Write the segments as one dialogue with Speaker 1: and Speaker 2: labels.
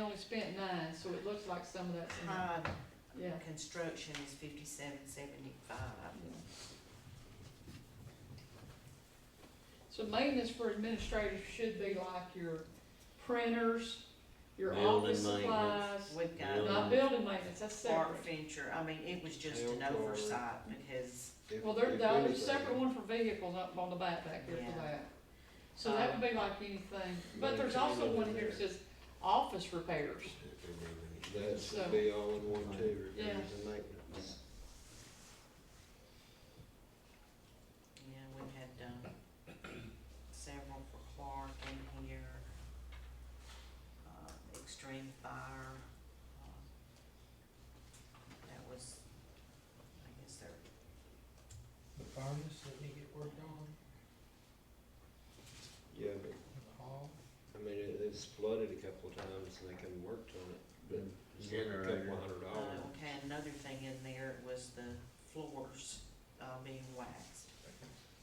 Speaker 1: only spent nine, so it looks like some of that's in there,
Speaker 2: Prime
Speaker 1: yeah.
Speaker 2: construction is fifty-seven seventy-five.
Speaker 1: yeah. So maintenance for administrators should be like your printers, your
Speaker 3: Building
Speaker 1: office supplies,
Speaker 3: maintenance.
Speaker 2: We've
Speaker 3: Really?
Speaker 2: got
Speaker 1: not building maintenance, that's
Speaker 2: Art
Speaker 1: separate.
Speaker 2: Venture, I mean, it was just an
Speaker 3: Hell, Lord.
Speaker 2: oversight because,
Speaker 1: Well, there, the other separate one for vehicles up on the back back there for
Speaker 2: Yeah.
Speaker 1: that. So that would be like anything, but there's also one here that says office repairs.
Speaker 4: That's
Speaker 1: So-
Speaker 4: be all in one too,
Speaker 1: Yeah.
Speaker 4: repairs and maintenance.
Speaker 2: you know, we've had, um, several for Clark in here. Uh, Extreme Fire, um, that was, I guess their
Speaker 5: The furnace that they get worked on,
Speaker 4: Yeah, but,
Speaker 5: in the hall,
Speaker 4: I mean, it, it's flooded a couple of times and they couldn't work on it, but it's like a
Speaker 3: Generator.
Speaker 4: couple of hundred dollars.
Speaker 1: Oh.
Speaker 2: Uh, okay, another thing in there was the floors, uh, being waxed.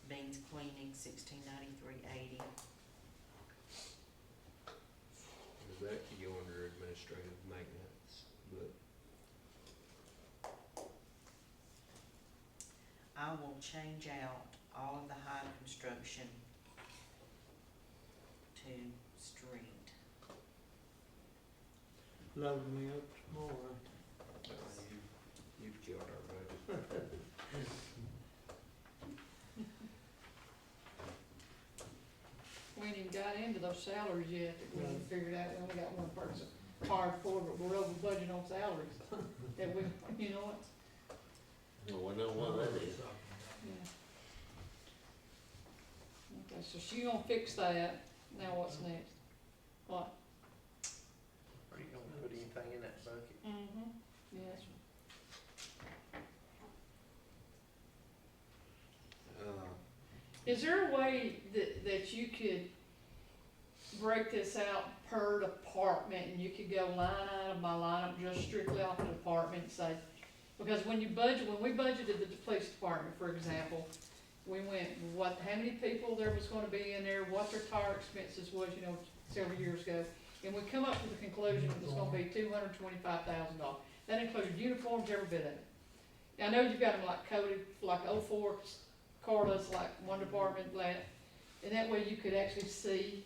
Speaker 2: Beans cleaning, sixteen ninety-three eighty,
Speaker 4: Does that could go under administrative maintenance, but
Speaker 2: I will change out all of the high construction to street.
Speaker 3: Love me up tomorrow.
Speaker 4: uh, you, you've killed our budget.
Speaker 1: We ain't even got into those salaries yet, that we haven't figured out, we only got one person hired for, but we're over budget on salaries, that we, you know what?
Speaker 3: Oh, I know what that
Speaker 4: Uh,
Speaker 3: is.
Speaker 1: Yeah. Okay, so she gonna fix that, now what's next? What?
Speaker 5: are you gonna put anything in that bucket?
Speaker 1: Mm-hmm, yes.
Speaker 4: Uh,
Speaker 1: Is there a way that, that you could break this out per department and you could go line item by line item, just strictly off the department and say, because when you budget, when we budgeted the police department, for example, we went, what, how many people there was gonna be in there, what their tire expenses was, you know, several years ago. And we come up to the conclusion it was gonna be two hundred twenty-five thousand dollars. That included uniforms, every bit of it. Now, I know you've got them like coded, like oh four, Carlos, like one department, like, and that way you could actually see,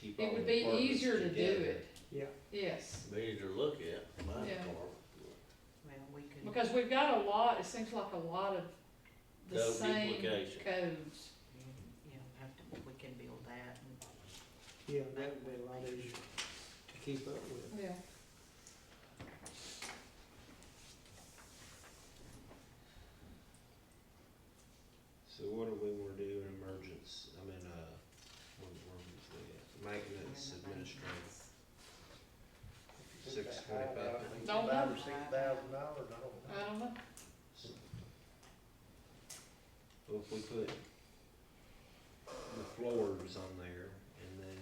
Speaker 4: keep
Speaker 1: it
Speaker 4: all
Speaker 1: would
Speaker 4: the
Speaker 1: be
Speaker 4: departments
Speaker 1: easier to do
Speaker 4: together.
Speaker 1: it.
Speaker 5: Yeah.
Speaker 1: Yes,
Speaker 3: Be easy to look at, my
Speaker 1: Yeah.
Speaker 3: department.
Speaker 2: Well, we could.
Speaker 1: because we've got a lot, it seems like a lot of the
Speaker 3: Code
Speaker 1: same
Speaker 3: duplication.
Speaker 1: codes.
Speaker 2: You know, have to, we can build that and.
Speaker 5: Yeah, that would be a lot easier to keep up with.
Speaker 1: Yeah.
Speaker 4: So what do we wanna do in emergence, I mean, uh, what, what was the, maintenance administrative,
Speaker 5: If you put
Speaker 4: Six
Speaker 5: that high
Speaker 4: twenty-five.
Speaker 5: out, I think
Speaker 1: Don't
Speaker 5: Five
Speaker 1: know.
Speaker 5: or six thousand dollars, I don't know.
Speaker 1: I don't know,
Speaker 4: well, if we put the floors on there and then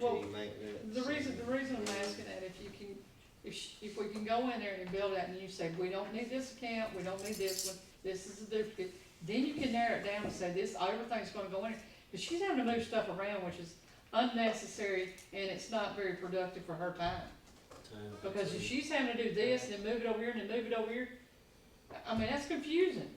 Speaker 1: Well,
Speaker 4: IT maintenance.
Speaker 1: the reason,
Speaker 4: and-
Speaker 1: the reason I'm asking that, if you can, if, sh- if we can go in there and build that and you say, we don't need this account, we don't need this one, this is a duplicate, then you can narrow it down and say, this, everything's gonna go in there. But she's having to move stuff around, which is unnecessary, and it's not very productive for her time.
Speaker 3: Time to
Speaker 1: Because if
Speaker 3: see.
Speaker 1: she's having to do this and then move it over here and then move it over here, I mean, that's confusing.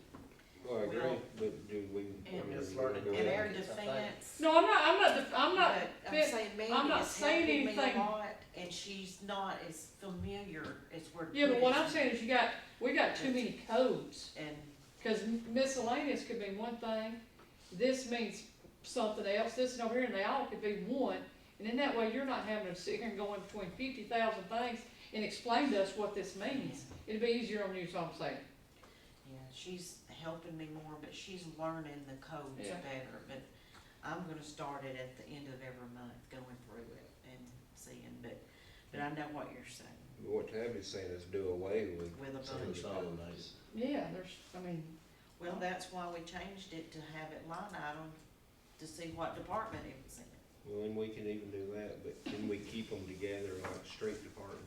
Speaker 4: Well, I agree,
Speaker 2: Well-
Speaker 4: but do we, I
Speaker 2: And
Speaker 4: mean,
Speaker 5: just
Speaker 4: we wanna
Speaker 5: learning
Speaker 4: go
Speaker 5: to
Speaker 2: In
Speaker 4: ahead
Speaker 2: our
Speaker 4: and-
Speaker 5: Yes, I think.
Speaker 2: defense.
Speaker 1: No, I'm not, I'm not, the- I'm not,
Speaker 2: But I'm
Speaker 1: fit-
Speaker 2: saying Mandy
Speaker 1: I'm not
Speaker 2: is
Speaker 1: saying
Speaker 2: helping me a
Speaker 1: anything.
Speaker 2: lot, and she's not as familiar as we're.
Speaker 1: yeah, but what I'm
Speaker 2: doing.
Speaker 1: saying is you got, we got too many codes.
Speaker 2: And,
Speaker 1: Cause miscellaneous could mean one thing, this means something else, this and over here, and they all could be one. And then that way, you're not having to sit here and go in between fifty thousand things and explain to us what this means. It'd be easier on you, so I'm saying.
Speaker 2: yeah, she's helping me more, but she's learning the codes
Speaker 1: Yeah.
Speaker 2: better, but I'm gonna start it at the end of every month, going through it and seeing, but, but I know what you're saying
Speaker 4: What Tabby's saying is do away with.
Speaker 2: with a
Speaker 4: some of
Speaker 2: bunch.
Speaker 4: the
Speaker 3: Consolidate.
Speaker 4: codes.
Speaker 1: Yeah, there's, I mean,
Speaker 2: Well, that's why we changed it to have it line item, to see what department it was in.
Speaker 4: Well, and we can even do that, but can we keep them together like street department,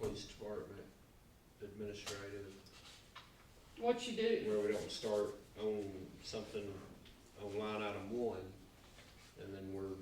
Speaker 4: police department, administrative,
Speaker 1: what you do,
Speaker 4: where we don't start on something on line item one, and then we're